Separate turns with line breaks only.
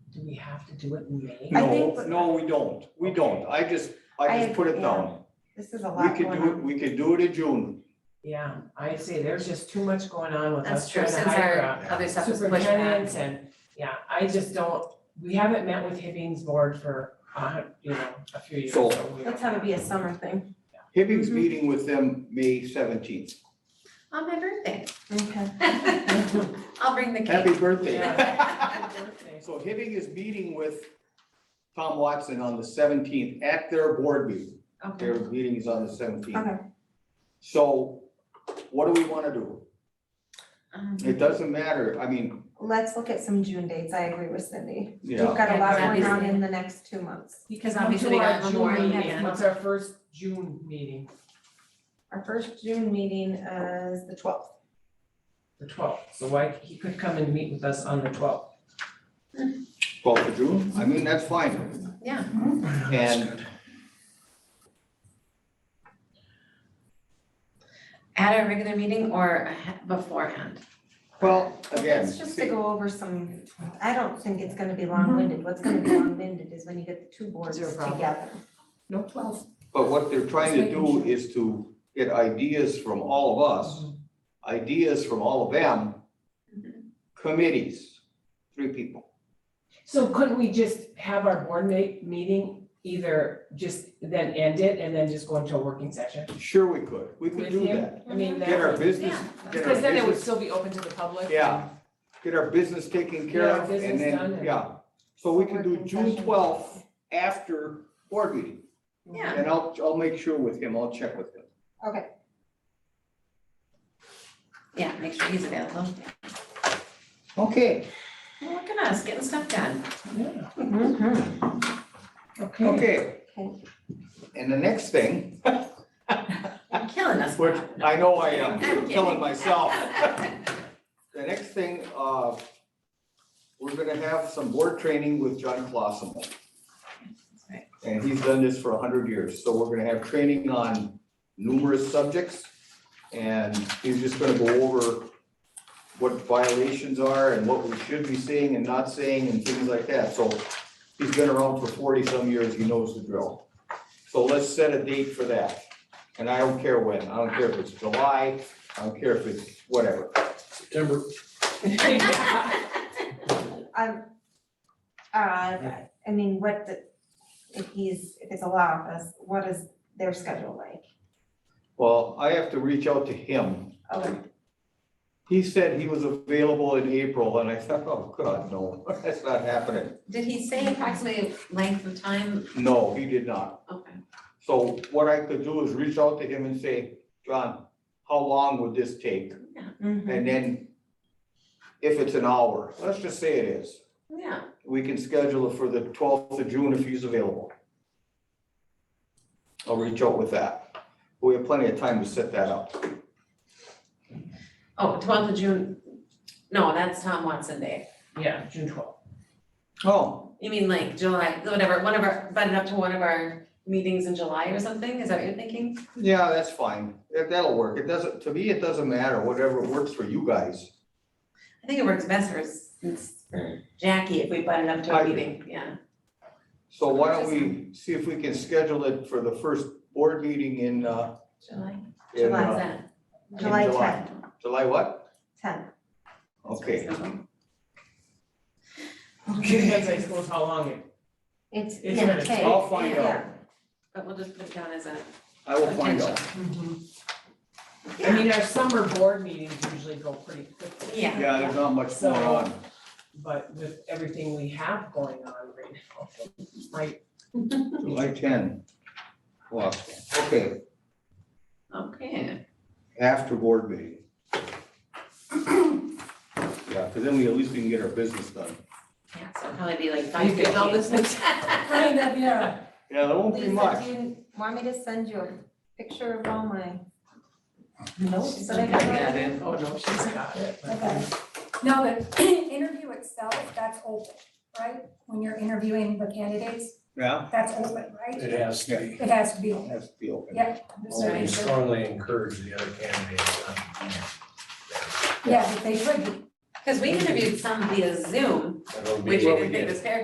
do we have to do it in May?
I
No,
think what-
no, we don't, we don't, I just, I
I-
just put it
yeah.
down.
This is a
We
lot
could
going
do, it.
on.
we could do it in June,
Yeah, I see, there's just too much going on with
That's
us
true,
trying to
since
hire
our
a
other stuff was pushed
superintendent
back.
and, yeah, I just don't, we haven't met with Hibbing's board for, uh, you know, a few years.
So-
so we
Let's
don't-
have it be a summer thing.
Hibbing's
Mhm.
meeting with them May seventeenth,
On my birthday.
Okay.
I'll bring the cake.
happy birthday.
Yeah.
Happy birthday.
So Hibbing is meeting with Tom Watson on the seventeenth at their board meeting,
Okay.
their meeting is on the seventeenth.
Okay.
So what do we wanna do?
Um,
It doesn't matter, I mean,
Let's look at some June dates. I agree with Cindy. We've
yeah,
got a lot
Yeah,
going on
obviously.
in the next two months.
Because
Come
obviously we
to our
got
June
Memorial
meeting.
weekend.
What's our first June meeting,
Our first June meeting is the twelfth.
the twelfth, so why, he could come and meet with us on the twelfth.
twelfth of June, I mean, that's fine,
Yeah,
and
at a regular meeting or ahe- beforehand.
well, again.
It's just to
see-
go over some, I don't think it's gonna be long-winded. What's gonna be long-winded is when you get the two boards
Zero problem.
together.
No, twelfth.
But what they're trying to
Just making
do is to get ideas from all of us, ideas from all of them, committees, three people.
So couldn't we just have our board ma- meeting either just then end it and then just go into a working session?
Sure, we could, we could
With
do
him?
that.
I mean, that
Get our
would-
business,
Yeah.
get our
Because then it would
business,
still be open to the public.
yeah, get our business taken care
Get our
of and
business done
then,
and-
yeah. So we can do
Working
June
session.
twelfth after board meeting.
Yeah.
And I'll, I'll make sure with him, I'll check with him.
Okay,
Yeah, make sure he's available.
Okay,
Well, Look at us, getting stuff done.
Yeah, okay.
okay.
Okay.
And the next thing
You're killing us.
Which
Bob.
I know I am,
I'm
I'm
kidding.
killing myself. The next thing, uh, we're gonna have some board training with John Clausen.
Right.
And he's done this for a hundred years, so we're gonna have training on numerous subjects. And he's just gonna go over what violations are and what we should be saying and not saying and things like that, so he's been around for forty-some years, he knows the drill. So let's set a date for that, and I don't care when, I don't care if it's July, I don't care if it's whatever.
September,
um, uh, I mean, what, the- if he's, if it's a law office, what is their schedule like?
Well, I have to reach out to him.
Oh,
He said he was available in April, and I thought, oh, God, no, that's not happening.
Did he say approximately length of time?
No, he did not.
Okay.
So what I could do is reach out to him and say, John, how long would this take?
mhm.
And then if it's an hour, let's just say it is,
Yeah,
we can schedule it for the twelfth of June if he's available. I'll reach out with that. We have plenty of time to set that up.
oh, twelfth of June, no, that's Tom Watson Day.
Yeah, June twelfth.
Oh,
You mean like July, whatever, one of our, button up to one of our meetings in July or something, is that what you're thinking?
yeah, that's fine. That- That'll work. It doesn't, to me, it doesn't matter, whatever works for you guys.
I think it works best for, s- s- for Jackie if we button up to
I
a
agree.
meeting, yeah.
So why don't we see if we can schedule it for the first board meeting in, uh,
July,
in,
what's
uh,
that?
in
July tenth,
July what?
tenth.
Okay,
Depends, I suppose, how long it,
It's,
It's
yeah,
gonna-
okay.
I'll find out.
Yeah.
But we'll just put it down as a
I will find out.
Mm-hmm. I mean, our summer board meetings usually go pretty quickly.
Yeah.
Yeah, there's not much going on.
But with everything we have going on right now, it might
July ten. Well, okay,
Okay,
after board meeting. Yeah, because then we, at least we can get our business done.
yeah, so it'll probably be like five
You
fifteen.
get all this kind of, yeah.
Yeah, there won't be
Lisa,
much.
do you want me to send you a picture of all my notes that I got?
Oh, no, she's got it.
Okay. Now, the interview itself, that's open, right? When you're interviewing the candidates,
Yeah.
that's open, right?
it has to be.
It has to be. open.
Has to be open.
Yeah.
Well,
We
we
so-
strongly encourage the other candidates. uh,
Yeah, but they should be.
Cause we interviewed some via Zoom,
that'll be-
which you didn't think was fair